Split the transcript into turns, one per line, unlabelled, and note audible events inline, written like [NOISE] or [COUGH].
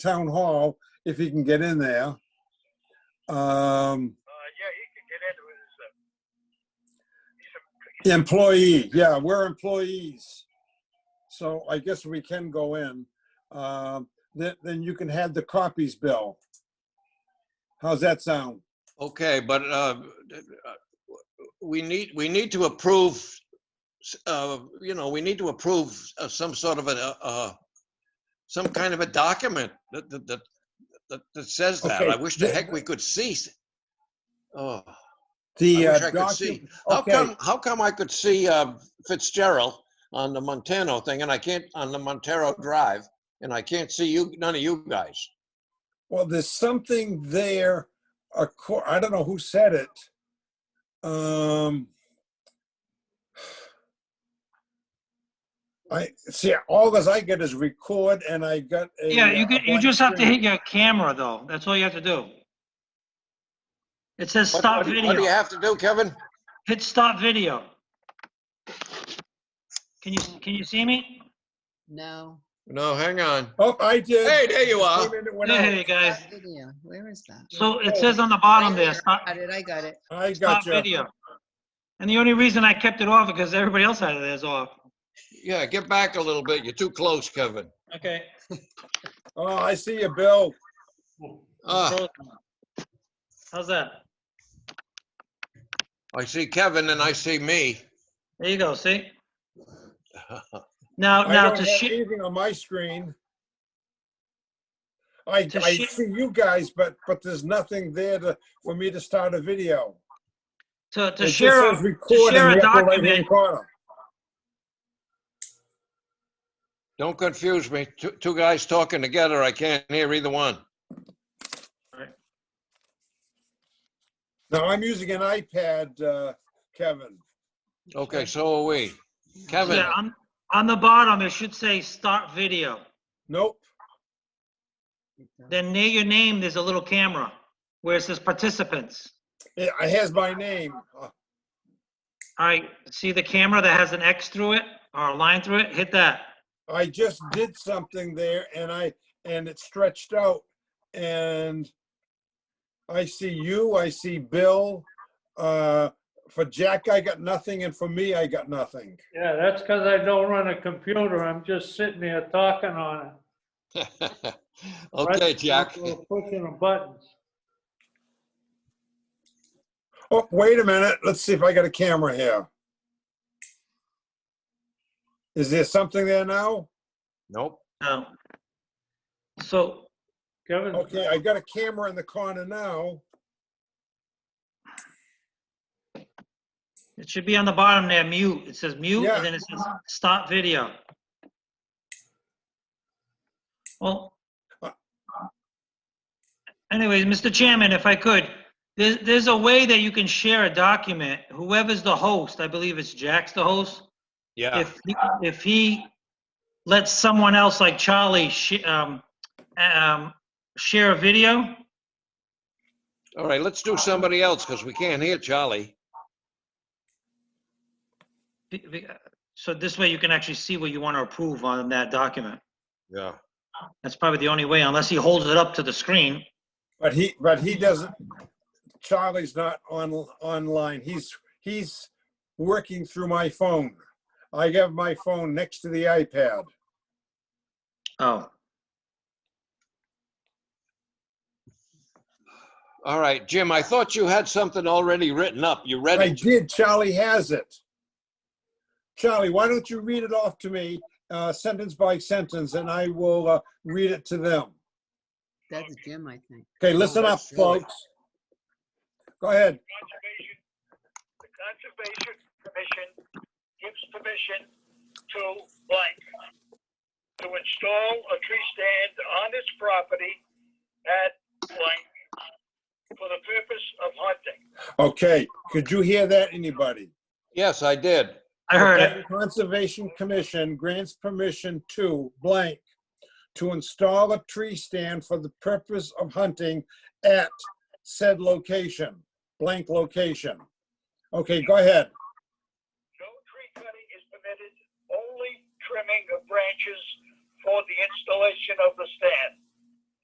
town hall if he can get in there. Um,
Uh, yeah, he can get into his, uh, he's a,
employee, yeah, we're employees. So I guess we can go in. Um, then, then you can have the copies, Bill. How's that sound?
Okay, but uh, we need, we need to approve, uh, you know, we need to approve uh, some sort of a, uh, some kind of a document that, that, that- that, that says that.
Okay,
I wish the
the-
heck we could see. s- Oh,
The
I
uh,
wish I could
docu-
see. how
okay.
come, how come I could see uh, Fitzgerald on the Montano thing and I can't, on the Montero Drive, and I can't see you, none of you guys?
Well, there's something there. acco- I don't know who said it. Um, I see. All as I get is record, and I got. A,
Yeah, you
uh,
could,
a
you
blank
just have to
screen.
hit your camera though. That's all you have to do. It says
What-
stop
what do you- What do you
video.
have to do, Kevin?
Hit stop video. Can you, can you see me?
No.
No, hang on.
Oh, I did.
Hey, there you are.
Wait a minute, when I-
Hey, guys.
Stop Video, where is that?
So it says on the bottom there, stop,
Got it, I got it.
I got
stop
you.
video. And the only reason I kept it off because everybody else had it as off.
Yeah, get back a little bit. You're too close, Kevin.
Okay.
Oh, I see you, Bill.
Ah,
How's that?
I see Kevin and I see me.
There you go, see?
[LAUGHS]
Now,
I
now
don't
to
have
share,
anything on my screen. I,
To
I
shi-
see you guys, but, but there's nothing there to, for me to start a video.
to,
It
to
just
share,
says
a-
record in
share a
the upper right-hand
document.
corner.
Don't confuse me. Two, two guys talking together. I can't hear either one.
No, I'm using an iPad, uh, Kevin.
Okay, so are we. Kevin,
yeah, on, on the bottom, it should say start video.
Nope.
Then near your name, there's a little camera where it says participants.
It it has my name. Uh,
All right, see the camera that has an X through it or a line through it? Hit that.
I just did something there and I, and it stretched out and I see you, I see Bill. Uh, for Jack, I got nothing and for me, I got nothing.
Yeah, that's because I don't run a computer. I'm just sitting there talking on it.
[LAUGHS] okay,
Right?
Jack.
Pushing the buttons.
Oh, wait a minute. Let's see if I got a camera here. Is there something there now?
Nope.
No. Oh. So,
Kevin,
Okay, I got a camera in the corner now.
It should be on the bottom there, mute. It says mute,
Yeah.
and then it says stop video. Well, anyways, Mr. Chairman, if I could, there's, there's a way that you can share a document. Whoever's the host, I believe it's Jack's the host.
Yeah.
If, he- if he lets someone else like Charlie sh- um, um, share a video,
All right, let's do somebody else because we can't hear Charlie.
be- be- so this way you can actually see what you want to approve on that document.
Yeah.
That's probably the only way, unless he holds it up to the screen.
But he, but he doesn't, Charlie's not on, online. He's, he's working through my phone. I have my phone next to the iPad.
Oh,
All right, Jim, I thought you had something already written up. You read
I
it.
did, Charlie has it. Charlie, why don't you read it off to me, uh, sentence by sentence, and I will, uh, read it to them.
That's Jim, I think.
Okay, listen up,
that's really-
folks. Go ahead.
conservation, the conservation commission gives permission to blank to install a tree stand on its property at blank for the purpose of hunting.
Okay, could you hear that, anybody?
Yes, I did.
I heard it.
The Conservation Commission grants permission to blank to install a tree stand for the purpose of hunting at said location, blank location. Okay, go ahead.
No tree cutting is permitted, only trimming of branches for the installation of the stand.